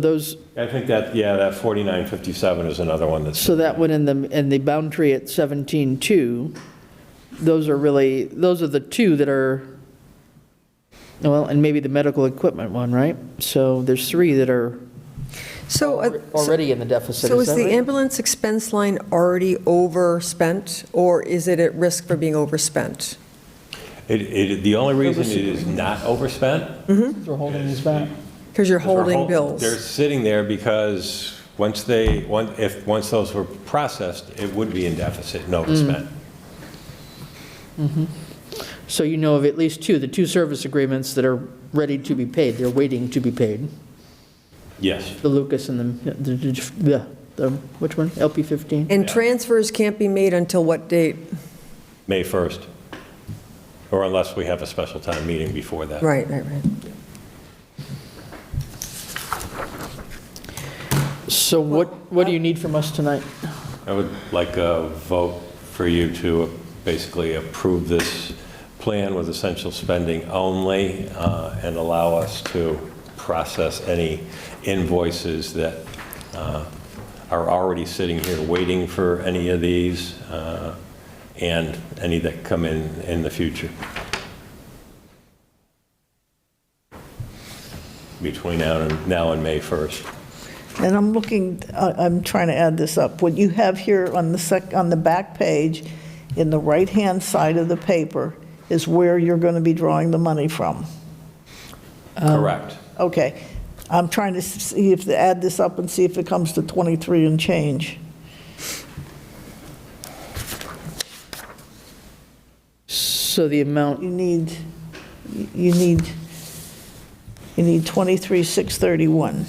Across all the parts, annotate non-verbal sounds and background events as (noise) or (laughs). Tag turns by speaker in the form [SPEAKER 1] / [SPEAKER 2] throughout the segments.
[SPEAKER 1] Those,
[SPEAKER 2] I think that, yeah, that 4957 is another one that's,
[SPEAKER 1] so that one in the, in the boundary at 17.2, those are really, those are the two that are, well, and maybe the medical equipment one, right? So there's three that are
[SPEAKER 3] So, uh, so-
[SPEAKER 1] already in the deficit,
[SPEAKER 3] so
[SPEAKER 1] is
[SPEAKER 3] is
[SPEAKER 1] that
[SPEAKER 3] the
[SPEAKER 1] right?
[SPEAKER 3] ambulance expense line already overspent, or is it at risk for being overspent?
[SPEAKER 2] it, it, the only reason it is not overspent.
[SPEAKER 1] They're holding us back.
[SPEAKER 3] Because you're
[SPEAKER 2] is we're
[SPEAKER 3] holding
[SPEAKER 2] hol- They're
[SPEAKER 3] bills.
[SPEAKER 2] sitting there because once they, one- if, once those were processed, it would be in deficit, and overspent.
[SPEAKER 3] Mm.
[SPEAKER 1] So you know of at least two, the two service agreements that are ready to be paid, they're waiting to be paid,
[SPEAKER 2] Yes.
[SPEAKER 1] the Lucas and the, the- the, the, which one? LP 15?
[SPEAKER 3] And
[SPEAKER 2] Yeah.
[SPEAKER 3] transfers can't be made until what date?
[SPEAKER 2] May 1st, or unless we have a special town meeting before that.
[SPEAKER 3] Right, right, right.
[SPEAKER 1] So what, what do you need from us tonight?
[SPEAKER 2] I would like a vote for you to basically approve this plan with essential spending only uh, and allow us to process any invoices that uh, are already sitting here waiting for any of these uh, and any that come in in the future. Between now and, now and May 1st.
[SPEAKER 4] And I'm looking, I- I'm trying to add this up. What you have here on the sec, on the back page, in the right-hand side of the paper, is where you're going to be drawing the money from.
[SPEAKER 2] Correct.
[SPEAKER 4] Okay. I'm trying to see if, add this up and see if it comes to 23 and change.
[SPEAKER 1] So the amount,
[SPEAKER 4] You need, you need, you need 23,631.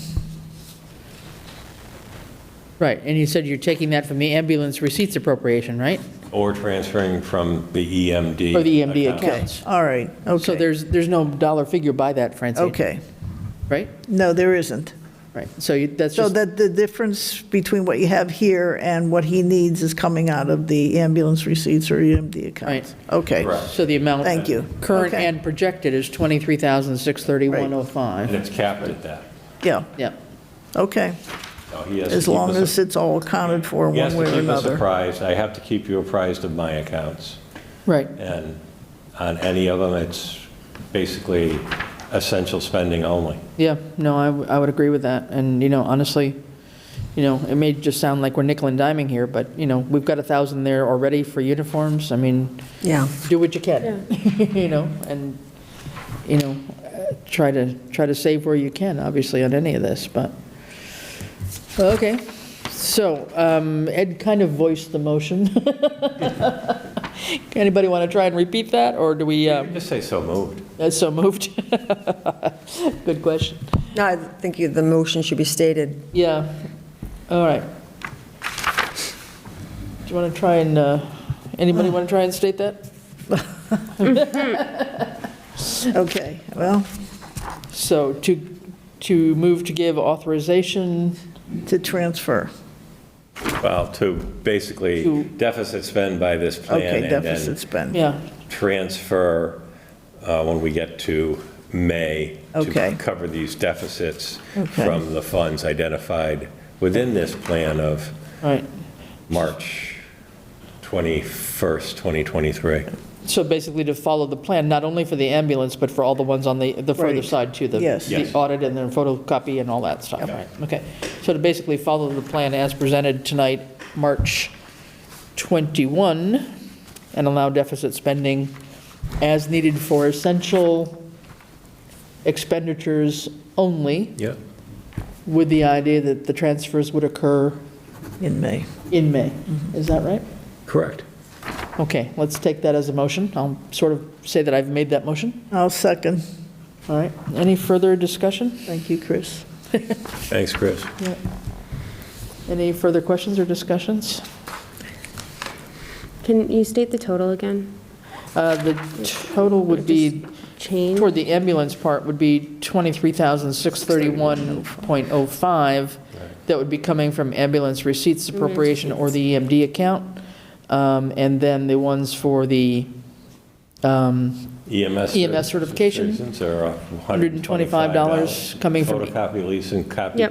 [SPEAKER 1] right, and you said you're taking that from the ambulance receipts appropriation, right?
[SPEAKER 2] Or transferring from the EMD.
[SPEAKER 1] Or
[SPEAKER 4] E
[SPEAKER 1] the EMD
[SPEAKER 2] account.
[SPEAKER 1] accounts.
[SPEAKER 4] All right, okay.
[SPEAKER 1] So there's, there's no dollar figure by that, Francine.
[SPEAKER 4] Okay.
[SPEAKER 1] Right?
[SPEAKER 4] No, there isn't.
[SPEAKER 1] Right, so you- that's
[SPEAKER 4] So
[SPEAKER 1] just,
[SPEAKER 4] that the difference between what you have here and what he needs is coming out of the ambulance receipts or EMD accounts? Okay.
[SPEAKER 2] Correct.
[SPEAKER 1] so the amount.
[SPEAKER 4] Thank you.
[SPEAKER 1] Current
[SPEAKER 4] Okay.
[SPEAKER 1] and projected is 23,631.05.
[SPEAKER 2] And it's capped at that.
[SPEAKER 4] Yeah,
[SPEAKER 1] Yep,
[SPEAKER 4] okay.
[SPEAKER 2] No, he has to
[SPEAKER 4] As
[SPEAKER 2] keep
[SPEAKER 4] long
[SPEAKER 2] us-
[SPEAKER 4] as it's all accounted for
[SPEAKER 2] He has
[SPEAKER 4] one
[SPEAKER 2] to
[SPEAKER 4] way or
[SPEAKER 2] keep us
[SPEAKER 4] another.
[SPEAKER 2] apprised. I have to keep you apprised of my accounts.
[SPEAKER 1] right.
[SPEAKER 2] And on any of them, it's basically essential spending only.
[SPEAKER 1] Yeah, no, I, w- I would agree with that. And, you know, honestly, you know, it may just sound like we're nickel and diming here, but, you know, we've got a 1,000 there already for uniforms. I mean,
[SPEAKER 3] Yeah.
[SPEAKER 1] do what you can, (laughs) you know, and, you know, uh, try to, try to save where you can, obviously, on any of this, but, okay. So um, Ed kind of voiced the motion. (laughs) Anybody want to try and repeat that, or do we, uh,
[SPEAKER 2] Just say so moved.
[SPEAKER 1] that's so moved? (laughs) Good question.
[SPEAKER 3] No, I think you- the motion should be stated.
[SPEAKER 1] Yeah, all right. Do you want to try and, uh, anybody want to try and state that?
[SPEAKER 4] Okay, well,
[SPEAKER 1] So to, to move to give authorization
[SPEAKER 4] to transfer.
[SPEAKER 2] Well, to basically
[SPEAKER 1] To-
[SPEAKER 2] deficit spend by this plan
[SPEAKER 4] Okay,
[SPEAKER 2] and
[SPEAKER 4] deficit
[SPEAKER 2] then
[SPEAKER 4] spend.
[SPEAKER 1] Yeah,
[SPEAKER 2] transfer uh, when we get to May
[SPEAKER 4] Okay.
[SPEAKER 2] to cover these deficits
[SPEAKER 4] Okay.
[SPEAKER 2] from the funds identified within this plan of
[SPEAKER 1] right.
[SPEAKER 2] March 21st, 2023.
[SPEAKER 1] So basically to follow the plan, not only for the ambulance, but for all the ones on the, the further
[SPEAKER 4] Right.
[SPEAKER 1] side too. the-
[SPEAKER 4] Yes.
[SPEAKER 1] The
[SPEAKER 2] Yes.
[SPEAKER 1] audit and then photocopy and all that stuff, right? Okay. So to basically follow the plan as presented tonight, March 21, and allow deficit spending as needed for essential expenditures only,
[SPEAKER 2] Yep.
[SPEAKER 1] with the idea that the transfers would occur
[SPEAKER 4] in May.
[SPEAKER 1] in May. Is that right?
[SPEAKER 2] Correct.
[SPEAKER 1] Okay, let's take that as a motion. I'll sort of say that I've made that motion.
[SPEAKER 4] I'll second.
[SPEAKER 1] All right, any further discussion?
[SPEAKER 4] Thank you, Chris.
[SPEAKER 2] Thanks, Chris.
[SPEAKER 1] Any further questions or discussions?
[SPEAKER 5] Can you state the total again?
[SPEAKER 1] Uh, The total would be,
[SPEAKER 5] Change?
[SPEAKER 1] toward the ambulance part, would be 23,631.05. That would be coming from ambulance receipts appropriation or the EMD account. Um, And then the ones for the um,
[SPEAKER 2] EMS.
[SPEAKER 1] EMS certification,
[SPEAKER 2] certifications are $125.
[SPEAKER 1] $125 coming from-
[SPEAKER 2] Photocopy lease and copy
[SPEAKER 5] Yep.